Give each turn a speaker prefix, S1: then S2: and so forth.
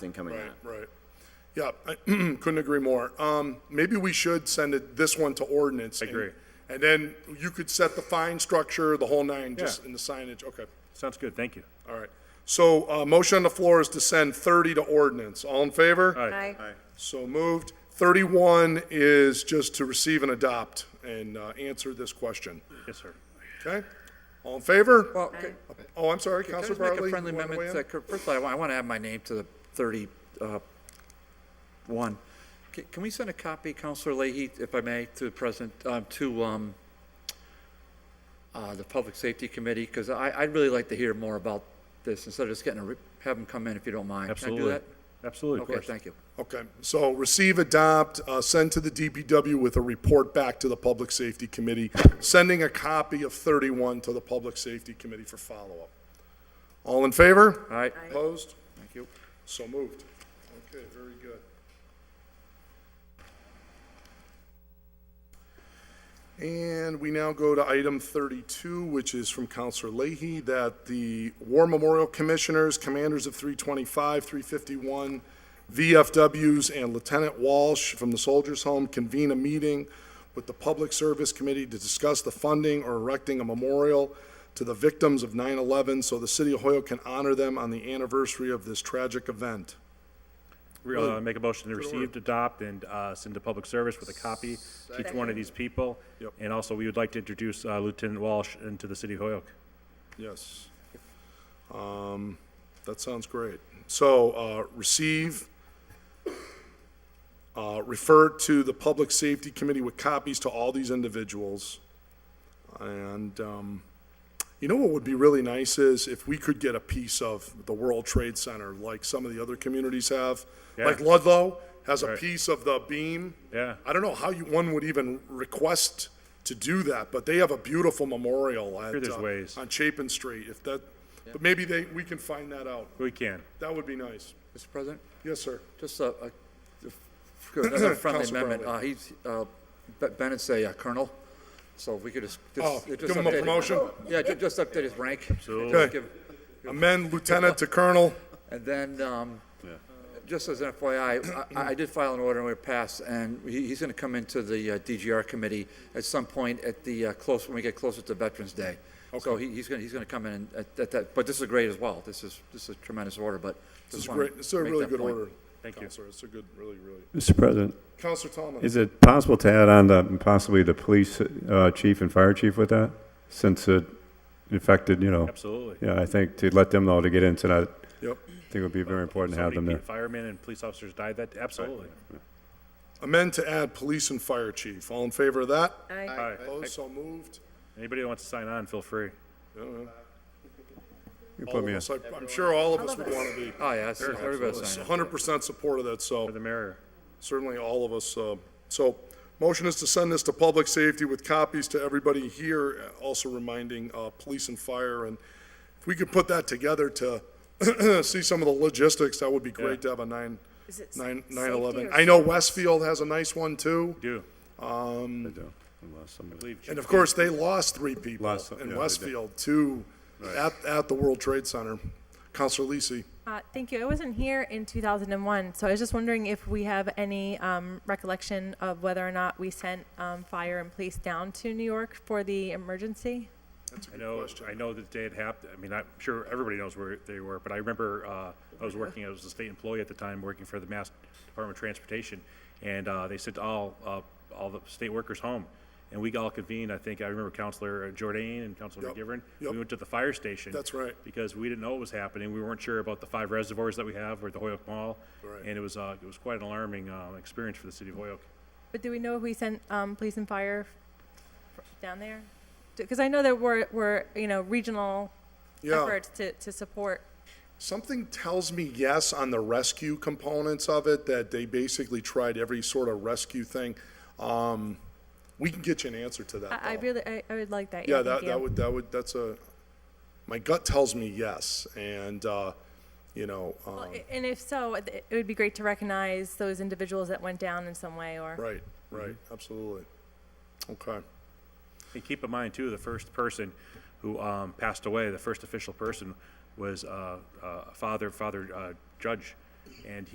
S1: thing coming
S2: Right,
S1: out.
S2: right. Yeah, I couldn't agree more. Um, maybe we should send it, this one to ordinance. I
S3: agree.
S2: And then you could set the fine structure, the whole nine, just
S3: Yeah.
S2: in the signage, okay,
S3: Sounds good, thank you.
S2: all right. So, uh, motion on the floor is to send thirty to ordinance. All in favor?
S3: All right,
S4: Aye.
S2: So moved. Thirty-one is just to receive and adopt and, uh, answer this question,
S3: yes, sir.
S2: okay? All in favor?
S5: Well, can
S2: Oh, I'm sorry,
S5: can I
S2: Counselor
S5: just make
S2: Bartley?
S5: a
S2: you
S5: friendly
S2: wanna
S5: amendment?
S2: weigh in?
S5: to- First of all, I want, I want to add my name to the thirty-one. Can we send a copy, Counselor Leahy, if I may, to the President, um, to um, uh, the Public Safety Committee? Because I, I'd really like to hear more about this instead of just getting, a re- have them come in if you don't mind. Can I do
S3: Absolutely.
S5: that?
S3: Absolutely, of
S5: Okay,
S3: course.
S5: thank you.
S2: Okay, so receive, adopt, uh, send to the DPW with a report back to the Public Safety Committee, sending a copy of 31 to the Public Safety Committee for follow-up. All in favor?
S5: All right,
S2: Opposed?
S5: thank you.
S2: So moved. Okay, very good. And we now go to item 32, which is from Counselor Leahy, that the War Memorial Commissioners, Commanders of 325, 351, VFWs, and Lieutenant Walsh from the Soldiers Home convene a meeting with the Public Service Committee to discuss the funding or erecting a memorial to the victims of 9/11 so the city of Hoyoke can honor them on the anniversary of this tragic event.
S3: Re- uh, Make a motion to receive, adopt, and uh, send to public service with a copy to each one of these people.
S2: Yep.
S3: And also, we would like to introduce uh, Lieutenant Walsh into the city of Hoyoke.
S2: Yes. Um, that sounds great. So, uh, receive, uh, refer to the Public Safety Committee with copies to all these individuals. And, um, you know what would be really nice is if we could get a piece of the World Trade Center, like some of the other communities have. Like
S3: Yeah.
S2: Ludlow has a
S3: Right.
S2: piece of the beam.
S3: Yeah.
S2: I don't know how you, one would even request to do that, but they have a beautiful memorial at,
S3: Sure, there's
S2: uh,
S3: ways.
S2: on Chapin Street, if that, but maybe they, we can find that out.
S3: We can.
S2: That would be nice.
S5: Mr. President?
S2: Yes, sir.
S5: Just a, a- another friendly
S2: Councilor
S5: amendment.
S2: Brownlee.
S5: Uh, he's, uh, Be- Bennett's a uh, colonel, so if we could just. just-
S2: Oh,
S5: just
S2: give him a
S5: update-
S2: promotion?
S5: Yeah, ju- just update his rank.
S2: Okay.
S5: Give-
S2: Amend lieutenant to colonel.
S5: And then, um, just as an FYI, I, I did file an order and we passed, and he, he's gonna come into the uh, DGR committee at some point at the, uh, close, when we get closer to Veterans Day. So he, he's gonna, he's gonna come in and, at, at that, but this is great as well. This is, this is a tremendous order, but.
S2: This is
S5: just wanted
S2: great.
S5: to
S2: It's a
S5: make
S2: really
S5: that
S2: good
S5: point.
S2: order.
S3: Thank you.
S2: Counselor, it's a good, really, really.
S6: Mr. President,
S2: Counselor Tomlin.
S6: is it possible to add on the, possibly the police uh, chief and fire chief with that? Since it affected, you know,
S3: Absolutely.
S6: yeah, I think to let them know to get into that, I
S2: Yep.
S6: think it would be very important to
S3: So
S6: have them
S3: many
S6: there.
S3: pe- Firemen and police officers died that, absolutely.
S2: Amend to add police and fire chief. All in favor of that?
S4: Aye.
S3: All right.
S2: Opposed, so moved.
S3: Anybody that wants to sign on, feel free.
S6: You
S2: All
S6: put
S2: of
S6: me on.
S2: us, I- I'm sure all of us would want to be.
S5: Oh, yeah, that's- everybody's saying.
S2: Hundred percent support of that, so.
S3: For the mayor.
S2: certainly all of us. uh, So, motion is to send this to public safety with copies to everybody here, uh, also reminding uh, police and fire, and if we could put that together to see some of the logistics, that would be great to have a nine,
S4: Is it
S2: nine,
S4: sa-
S2: nine eleven.
S4: safety or
S2: I know Westfield has a nice one too,
S3: Do.
S6: I do. I lost somebody.
S2: and of course, they lost three people
S6: Lost some- yeah, they
S2: in
S6: did.
S2: Westfield, two at, at the World Trade Center. Counselor Lisi,
S7: Uh, Thank you. I wasn't here in 2001, so I was just wondering if we have any um, recollection of whether or not we sent um, fire and police down to New York for the emergency?
S3: I know, I know the day it happened, I mean, I'm sure everybody knows where they were, but I remember, uh, I was working, I was a state employee at the time, working for the Mass Department of Transportation, and, uh, they sent all, uh, all the state workers home, and we all convened, I think, I remember Counselor Jordan and Counselor
S2: Yep,
S3: McGivern.
S2: yep.
S3: We went to the fire station.
S2: That's right.
S3: Because we didn't know what was happening, we weren't sure about the five reservoirs that we have, or the Hoyoke Mall.
S2: Right.
S3: And it was, uh, it was quite an alarming, uh, experience for the city of Hoyoke.
S7: But do we know if we sent um, police and fire f- down there? Because I know there were, were, you know, regional
S2: Yeah.
S7: efforts to, to support.
S2: Something tells me yes on the rescue components of it, that they basically tried every sort of rescue thing. Um, we can get you an answer to that.
S7: I I
S2: though.
S7: really, I I would like that.
S2: Yeah,
S7: thank
S2: that, that
S7: you.
S2: would, that would, that's a, my gut tells me yes, and, uh, you know,
S7: Well,
S2: um,
S7: i- And if so, it it would be great to recognize those individuals that went down in some way or.
S2: right, right, absolutely. Okay,
S3: And keep in mind too, the first person who um, passed away, the first official person was uh, uh, Father Father uh, Judge, and